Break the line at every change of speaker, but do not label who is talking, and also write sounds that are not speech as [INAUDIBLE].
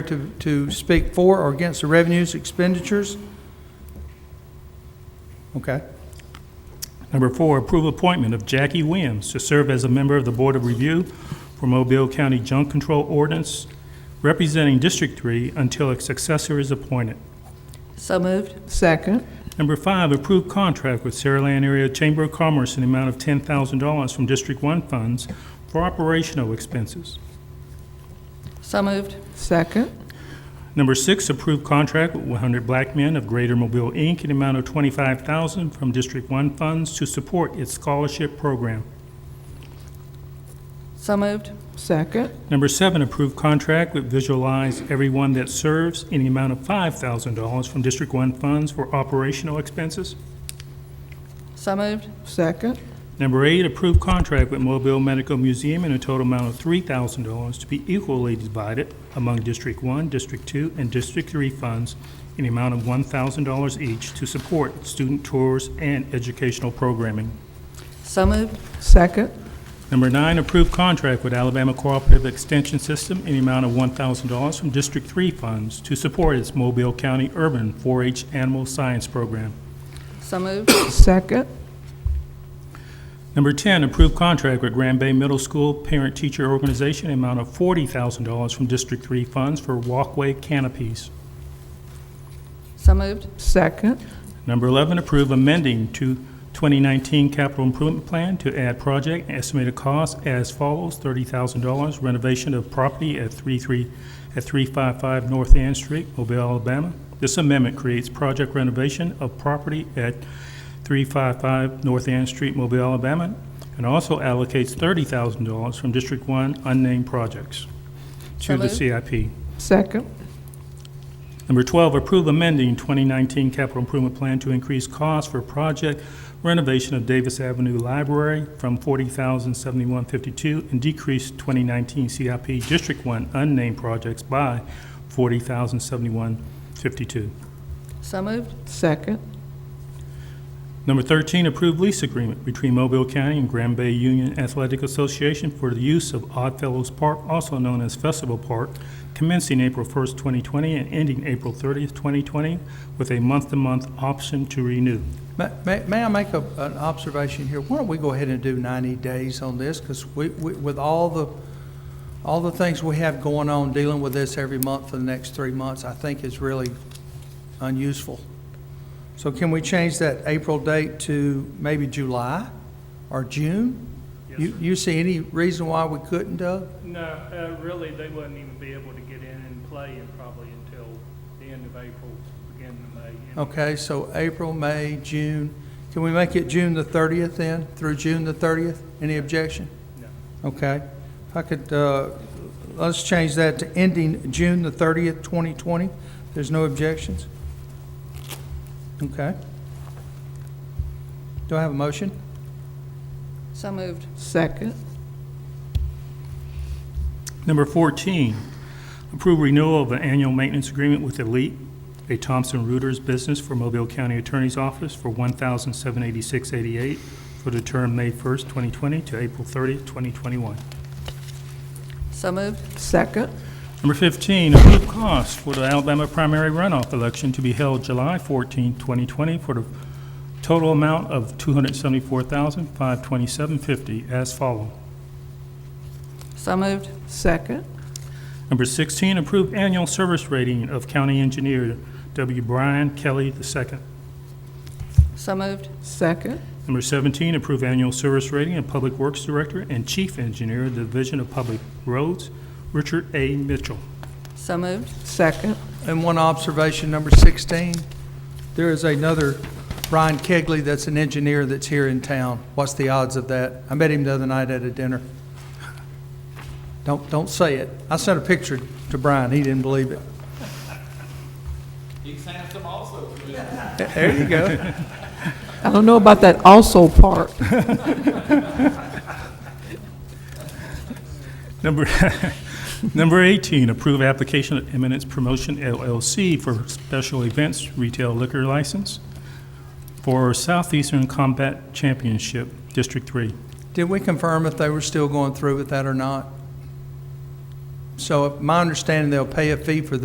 to, to speak for or against the revenues expenditures? Okay.
Number four, approve appointment of Jackie Williams to serve as a member of the Board of Review for Mobile County Junk Control Ordinance, representing District Three until a successor is appointed.
So moved.
Second.
Number five, approve contract with Saraland Area Chamber of Commerce in the amount of ten thousand dollars from District One funds for operational expenses.
So moved.
Second.
Number six, approve contract with 100 Black Men of Greater Mobile, Inc., in the amount of 25000 from District 1 funds to support its scholarship program.
So moved.
Second.
Number seven, approve contract with Visualize Everyone That Serves in the amount of $5,000 from District 1 funds for operational expenses.
So moved.
Second.
Number eight, approve contract with Mobile Medical Museum in a total amount of $3,000 to be equally divided among District 1, District 2, and District 3 funds in the amount of $1,000 each to support student tours and educational programming.
So moved.
Second.
Number nine, approve contract with Alabama Cooperative Extension System in the amount of $1,000 from District 3 funds to support its Mobile County Urban 4-H Animal Science Program.
So moved.
Second.
Number 10, approve contract with Grand Bay Middle School Parent Teacher Organization in amount of $40,000 from District 3 funds for walkway canopies.
So moved.
Second.
Number 11, approve amending to 2019 capital improvement plan to add project and estimated cost as follows, $30,000 renovation of property at 33, at 355 North Ann Street, Mobile, Alabama. This amendment creates project renovation of property at 355 North Ann Street, Mobile, Alabama, and also allocates $30,000 from District 1 unnamed projects
So
to the
moved.
CIP.
Second.
Number 12, approve amending 2019 capital improvement plan to increase costs for project renovation of Davis Avenue Library from $40,071.52 and decrease 2019 CIP District 1 unnamed projects by $40,071.52.
So moved.
Second.
Number 13, approve lease agreement between Mobile County and Grand Bay Union Athletic Association for the use of Oddfellows Park, also known as Festival Park, commencing April 1st, 2020 and ending April 30th, 2020, with a month-to-month option to renew.
Ma- May, may I make a, an observation here? Why don't we go ahead and do ninety days on this? Because we, we, with all the, all the things we have going on, dealing with this every month for the next three months, I think is really unuseful. So can we change that April date to maybe July or June? You, you see any reason why we couldn't, Doug?
No, uh, really, they wouldn't even be able to get in and play in probably until the end of April, beginning of May.
Okay, so April, May, June. Can we make it June the 30th then, through June the 30th? Any objection? No. Okay. If I could, uh, let's change that to ending June the 30th, 2020. There's no objections? Okay. Do I have a motion?
So moved.
Second.
Number 14, approve renewal of an annual maintenance agreement with Elite, a Thompson Reuters business for Mobile County Attorney's Office for $1,786.88 for the term May 1st, 2020 to April 30th, 2021.
So moved.
Second.
Number 15, approve costs for the Alabama primary runoff election to be held July 14, 2020, for the total amount of $274,527.50 as follows.
So moved.
Second.
Number 16, approve annual service rating of county engineer W. Brian Kelly II.
So moved.
Second.
Number 17, approve annual service rating of public works director and chief engineer, Division of Public Roads, Richard A. Mitchell.
So moved.
Second.
And one observation, number 16, there is another Brian Kegley that's an engineer that's here in town. What's the odds of that? I met him the other night at a dinner. Don't, don't say it. I sent a picture to Brian, he didn't believe it.
He's handsome also.
There you go.
I don't know about that also part.
Number, [LAUGHS] number 18, approve application of Eminence Promotion LLC for special events retail liquor license for Southeastern Combat Championship, District 3.
Did we confirm if they were still going through with that or not? So my understanding, they'll pay a fee for